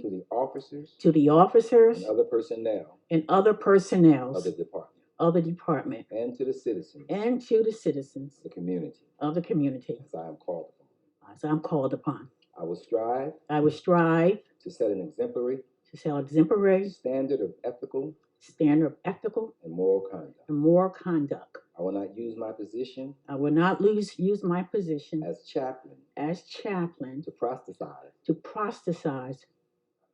to the officers to the officers and other personnel and other personnel of the department of the department and to the citizens of and to the citizens the community of the community as I am called upon. as I'm called upon. I will strive I will strive to set an exemplary to set exemplary standard of ethical standard of ethical and moral conduct. and moral conduct. I will not use my position I will not lose use my position as chaplain as chaplain to proselytize to proselytize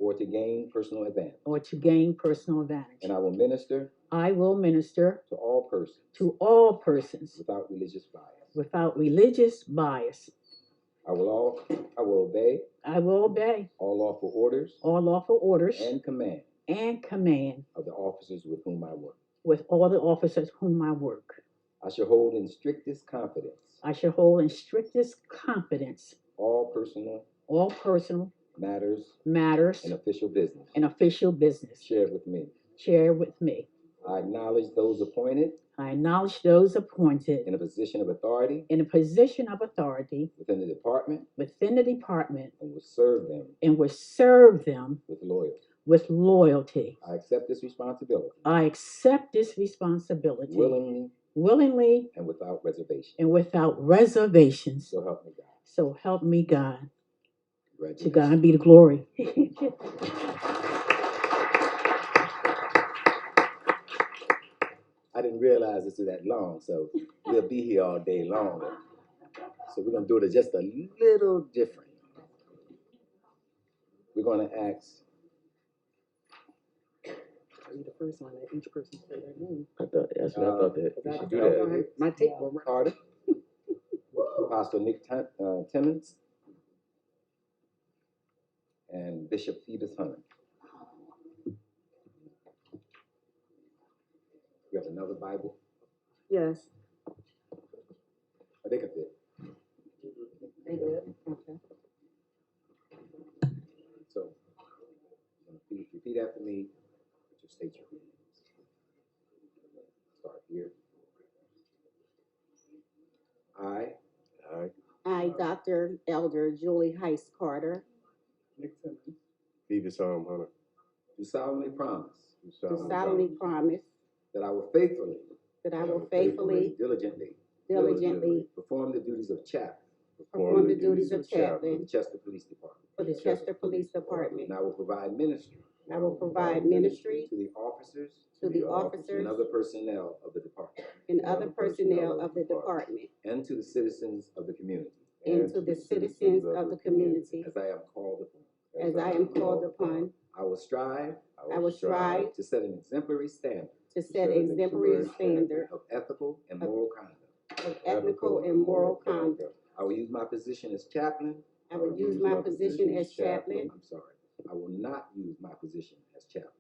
or to gain personal advantage. or to gain personal advantage. And I will minister I will minister to all persons to all persons without religious bias. without religious bias. I will all I will obey I will obey all lawful orders all lawful orders and commands and command of the officers with whom I work. with all the officers whom I work. I shall hold in strictest confidence I shall hold in strictest confidence all personal all personal matters matters and official business and official business. shared with me. Share with me. I acknowledge those appointed I acknowledge those appointed in a position of authority in a position of authority within the department within the department and will serve them and will serve them with loyalty. with loyalty. I accept this responsibility I accept this responsibility willingly willingly and without reservation. and without reservations. So help me God. So help me God. To Congratulations. God be the glory. I didn't realize this was that long, so we'll be here all day long. So we're gonna do it just a little different. We're gonna ask, be the first one, that each person say their name. I thought that's what I Uh, thought that Cause you I should do don't know how- that. My tape will run. Carter, Pastor Nick Tim- uh, Timmons, and Bishop Phoebus Hunter. We have another Bible. Yes. I think I did. They did. Okay. So, repeat repeat after me, just state your name. Start here. I. I. I, Dr. Elder Julie Heist Carter, Beavis Arm Hunter. Do solemnly promise do solemnly promise that I will faithfully. that I will faithfully, Diligently. diligently Perform the duties of chap perform the duties of chaplain in Chester Police Department. for the Chester Police Department. And I will provide ministry. I will provide ministry To the officers. To the And officers. other personnel of the department. and other personnel of the department And to the citizens of the community. and to the citizens of the community As I am called upon. as I am called upon. I will strive. I will strive To set an exemplary standard. to set exemplary standard Of ethical and moral conduct. of ethical and moral conduct. I will use my position as chaplain. I will use my position as chaplain. I'm sorry. I will not use my position as chaplain.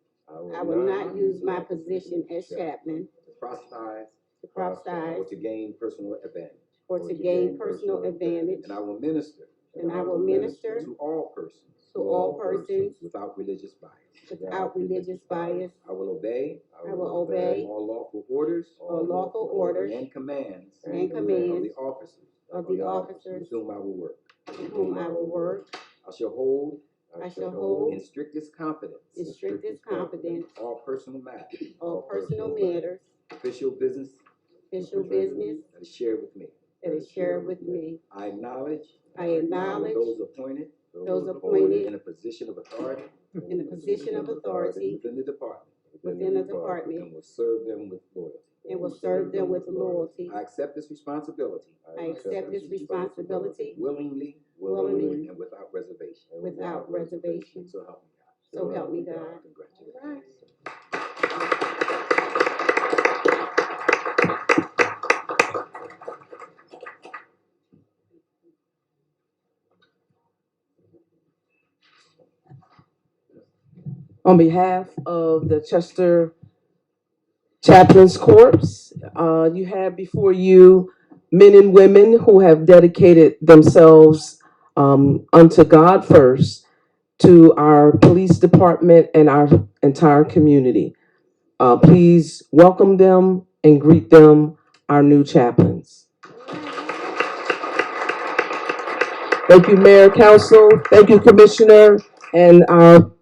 I will not use my position as chaplain To proselytize. to prophesy Or to gain personal advantage. or to gain personal advantage. And I will minister. And I will minister To all persons. To all persons. Without religious bias. Without religious bias. I will obey. I will obey All lawful orders. all lawful orders And commands. and Of commands the officers. of the officers With whom I will work. with whom I will work I shall hold. I shall hold In strictest confidence. in strictest confidence All personal matters. all personal matters, Official business. official business That is shared with me. that is shared with me. I acknowledge. I acknowledge Those appointed. those appointed In a position of authority. in the position of authority Within the department. within the And department will serve them with loyalty. and will serve them with loyalty. I accept this responsibility. I accept this responsibility Willingly. Willingly. And without reservation. without reservation. So help me God. So help me God. Congratulations. On behalf of the Chester Chaplains Corps, uh, you have before you men and women who have dedicated themselves, um, unto God first, to our police department and our entire community. Uh, please welcome them and greet them, our new chaplains. Thank you, Mayor, Council. Thank you, Commissioner. and our